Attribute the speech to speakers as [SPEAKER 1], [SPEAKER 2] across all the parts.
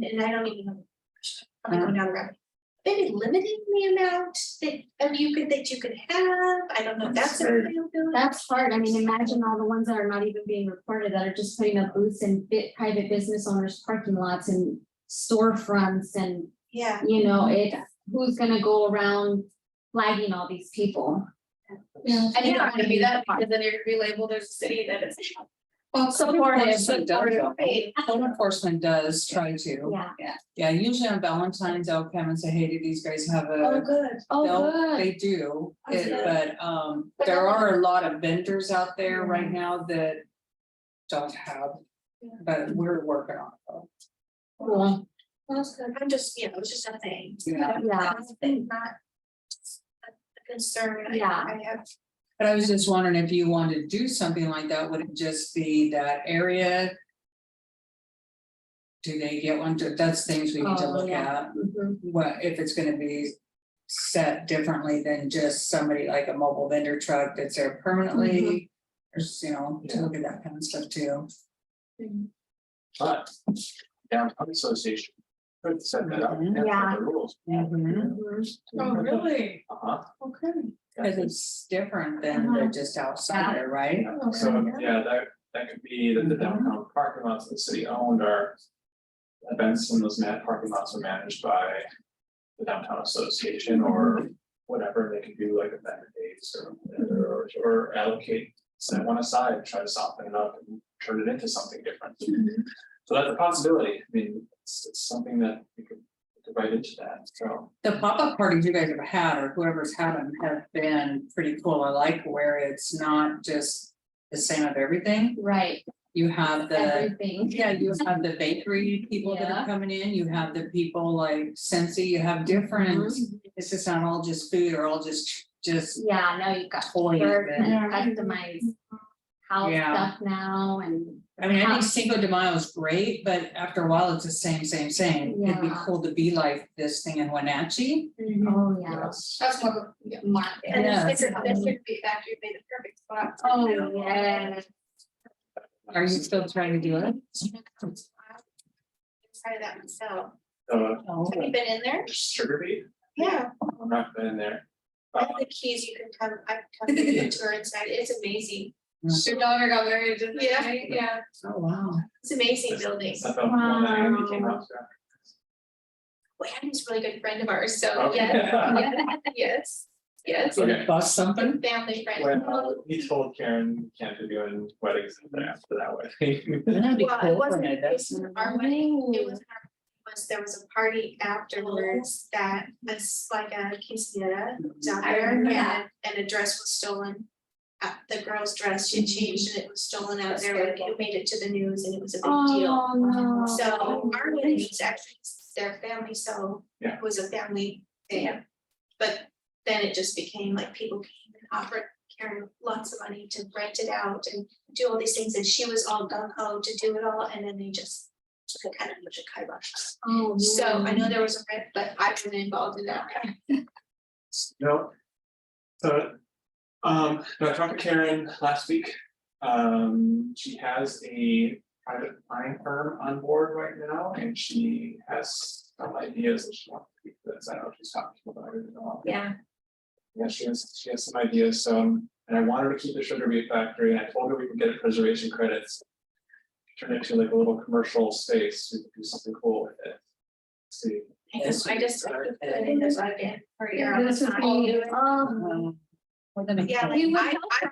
[SPEAKER 1] and I don't even know. I'm oh, going down the road. Maybe limiting the amount that of you could that you could have, I don't know, if that's a
[SPEAKER 2] Sure.
[SPEAKER 1] availability.
[SPEAKER 3] That's hard. I mean, imagine all the ones that are not even being reported that are just putting up booths in bit private business owners' parking lots and storefronts and,
[SPEAKER 1] Yeah,
[SPEAKER 3] you know, it, who's gonna go around flagging all these people?
[SPEAKER 4] Yeah.
[SPEAKER 3] I
[SPEAKER 4] I
[SPEAKER 3] think
[SPEAKER 4] didn't
[SPEAKER 3] that
[SPEAKER 4] want to be that, because then you're gonna be labeled as a city that is. Well,
[SPEAKER 2] Supportive, supportive.
[SPEAKER 4] Right.
[SPEAKER 2] Code enforcement does try to,
[SPEAKER 3] Yeah.
[SPEAKER 2] yeah, usually on Valentine's, I'll come and say, hey, do these guys have
[SPEAKER 1] oh,
[SPEAKER 2] a?
[SPEAKER 1] good,
[SPEAKER 2] They'll-
[SPEAKER 3] Oh, good.
[SPEAKER 2] They do,
[SPEAKER 1] Okay.
[SPEAKER 2] it- but um, there are a lot of vendors out there
[SPEAKER 3] Mm.
[SPEAKER 2] right now that don't have, but we're working on it.
[SPEAKER 3] Cool.
[SPEAKER 1] that's good, I'm just, you know, it's just a thing.
[SPEAKER 2] Yeah.
[SPEAKER 3] Yeah.
[SPEAKER 1] That's a thing, not. a- A concern, I
[SPEAKER 3] Yeah.
[SPEAKER 1] I have,
[SPEAKER 2] But I was just wondering if you wanted to do something like that, would it just be that area? Do they get one? That's things we need to
[SPEAKER 3] Oh,
[SPEAKER 2] look
[SPEAKER 3] yeah.
[SPEAKER 2] at.
[SPEAKER 3] Mhm.
[SPEAKER 2] what, if it's gonna be set differently than just somebody like a mobile vendor truck that's there
[SPEAKER 3] Mm-hmm.
[SPEAKER 2] permanently. There's, you know, to look at that kind of stuff too.
[SPEAKER 5] But downtown association could set that up. and
[SPEAKER 3] Mm-hmm.
[SPEAKER 5] set
[SPEAKER 3] Yeah.
[SPEAKER 5] The rules.
[SPEAKER 3] Mhm.
[SPEAKER 4] Oh, really?
[SPEAKER 5] Uh-huh.
[SPEAKER 4] Okay.
[SPEAKER 2] Cause it's different than
[SPEAKER 3] Uh-huh.
[SPEAKER 2] the just outsider, right?
[SPEAKER 5] Yeah, So, yeah, that, that could be that the
[SPEAKER 3] Mm-hmm.
[SPEAKER 5] downtown parking lots that the city owned are. Events in those mad parking lots are managed by the downtown association
[SPEAKER 3] Mm-hmm.
[SPEAKER 5] or whatever, they can do like event dates or, or allocate. Set one aside, try to soften it up and turn it into something different.
[SPEAKER 3] Mm-hmm.
[SPEAKER 5] So that's a possibility, I mean, it's, it's something that we could, we could write into that, so.
[SPEAKER 2] The pop-up parties you guys have had or whoever's had them have been pretty cool. I like where it's not just the same of everything.
[SPEAKER 3] Right,
[SPEAKER 2] You have the,
[SPEAKER 3] everything.
[SPEAKER 2] yeah, you have the bakery people that
[SPEAKER 3] Yeah.
[SPEAKER 2] are coming in, you have the people like Sensi, you have different
[SPEAKER 3] Mm-hmm.
[SPEAKER 2] It's just not all just food or all just, just
[SPEAKER 3] Yeah, now you've got
[SPEAKER 2] toys.
[SPEAKER 3] work
[SPEAKER 2] and-
[SPEAKER 3] and customized house
[SPEAKER 2] Yeah.
[SPEAKER 3] stuff now and,
[SPEAKER 2] I mean, I think Cinco de Mayo is great, but after a while, it's the same, same, same. It'd be
[SPEAKER 3] Yeah.
[SPEAKER 2] cool to be like this thing in Wenatchee.
[SPEAKER 3] oh, yeah.
[SPEAKER 5] Yes.
[SPEAKER 4] That's what, yeah, my,
[SPEAKER 1] and this
[SPEAKER 3] Yes.
[SPEAKER 1] is, this would be back, you made the perfect spot.
[SPEAKER 3] Oh, yeah.
[SPEAKER 2] Are you still trying to do it?
[SPEAKER 1] Try that myself,
[SPEAKER 5] Uh,
[SPEAKER 2] Oh,
[SPEAKER 1] have you been in there?
[SPEAKER 5] sugar beet,
[SPEAKER 1] Yeah.
[SPEAKER 5] I'm not in there.
[SPEAKER 1] I
[SPEAKER 5] Uh,
[SPEAKER 1] have the keys, you can come, I can come give you a tour inside, it's amazing,
[SPEAKER 4] your daughter got married, didn't they?
[SPEAKER 1] Yeah.
[SPEAKER 4] Right? Yeah.
[SPEAKER 2] Oh, wow.
[SPEAKER 1] it's an amazing building.
[SPEAKER 5] I felt one that I became
[SPEAKER 3] Wow.
[SPEAKER 5] upset.
[SPEAKER 1] We had this really good friend of ours, so
[SPEAKER 5] Okay.
[SPEAKER 1] yes, yes, yes,
[SPEAKER 2] Did
[SPEAKER 5] Okay.
[SPEAKER 2] it bust something?
[SPEAKER 1] family friend.
[SPEAKER 5] When uh, he told Karen we can't be doing weddings after that wedding.
[SPEAKER 2] That'd be
[SPEAKER 1] Well,
[SPEAKER 2] cool
[SPEAKER 1] it
[SPEAKER 2] for
[SPEAKER 1] wasn't,
[SPEAKER 2] me,
[SPEAKER 1] it
[SPEAKER 2] that's-
[SPEAKER 1] wasn't our wedding, it was, our- was, there was a party afterwards that was like a quinceanera down
[SPEAKER 3] I
[SPEAKER 1] there,
[SPEAKER 3] remember
[SPEAKER 1] and, and a dress was stolen. Uh, the girl's dress, she changed and it was stolen out
[SPEAKER 4] That's
[SPEAKER 1] there, like
[SPEAKER 4] terrible.
[SPEAKER 1] it made it to the news and it was a big deal.
[SPEAKER 3] Oh, no.
[SPEAKER 1] So our wedding was actually their family, so
[SPEAKER 5] Yeah.
[SPEAKER 1] it was a family thing. But then it just became like people came and offered Karen lots of money to rent it out and do all these things, and she was all gung ho to do it all, and then they just took a kind of much a kibosh.
[SPEAKER 3] Oh,
[SPEAKER 1] So I
[SPEAKER 3] man.
[SPEAKER 1] know there was a rent, but I've been involved in that.
[SPEAKER 5] No. So, um, no, I talked to Karen last week. Um, she has a private buying firm on board right now and she has some ideas that she wants to do this. I don't know if she's talking about it at all.
[SPEAKER 1] Yeah.
[SPEAKER 5] Yeah, she has, she has some ideas, so, um, and I wanted to keep the sugar beet factory, and I told her we could get preservation credits. Turn it into like a little commercial space, we could do something cool with it. See,
[SPEAKER 1] I just, I just, I think there's like a party
[SPEAKER 3] Yeah,
[SPEAKER 1] around
[SPEAKER 3] This
[SPEAKER 1] the
[SPEAKER 3] is
[SPEAKER 1] time.
[SPEAKER 3] all, oh,
[SPEAKER 2] Um, we're gonna-
[SPEAKER 1] Yeah, like
[SPEAKER 3] You would
[SPEAKER 1] I,
[SPEAKER 3] help
[SPEAKER 1] I.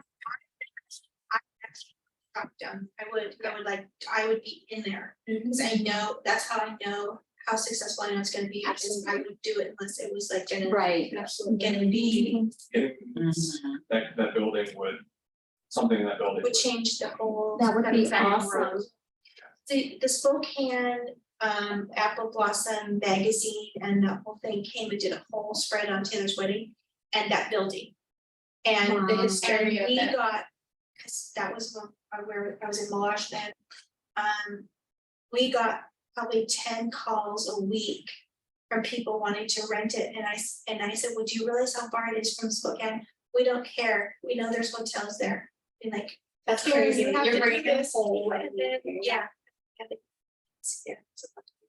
[SPEAKER 1] I actually talk to them. I would, I would like, I would be in there, because I know, that's how I know how successful I know it's gonna be, because I would do it unless it was like gonna.
[SPEAKER 3] right.
[SPEAKER 1] Absolutely gonna be,
[SPEAKER 5] getting
[SPEAKER 2] Mhm.
[SPEAKER 5] that, that building would, something in that building
[SPEAKER 1] would
[SPEAKER 5] would
[SPEAKER 1] change the whole.
[SPEAKER 3] That would be
[SPEAKER 1] entire world.
[SPEAKER 3] awesome.
[SPEAKER 1] The, the Spokane, um, Apple Blossom magazine and that whole thing came and did a whole spread on Taylor's wedding and that building. And the
[SPEAKER 3] Wow.
[SPEAKER 1] history
[SPEAKER 4] Area of
[SPEAKER 1] we
[SPEAKER 4] that.
[SPEAKER 1] got, cause that was when I- where I was in Malash then. Um, we got probably ten calls a week from people wanting to rent it and I, s- and I said, would you realize how far it is from Spokane? We don't care, we know there's hotels there, and like,
[SPEAKER 4] That's
[SPEAKER 1] Karen,
[SPEAKER 4] crazy.
[SPEAKER 1] you have
[SPEAKER 4] You're
[SPEAKER 1] to do
[SPEAKER 4] bringing this
[SPEAKER 1] this.
[SPEAKER 4] whole.
[SPEAKER 1] and then, yeah. Yeah. so-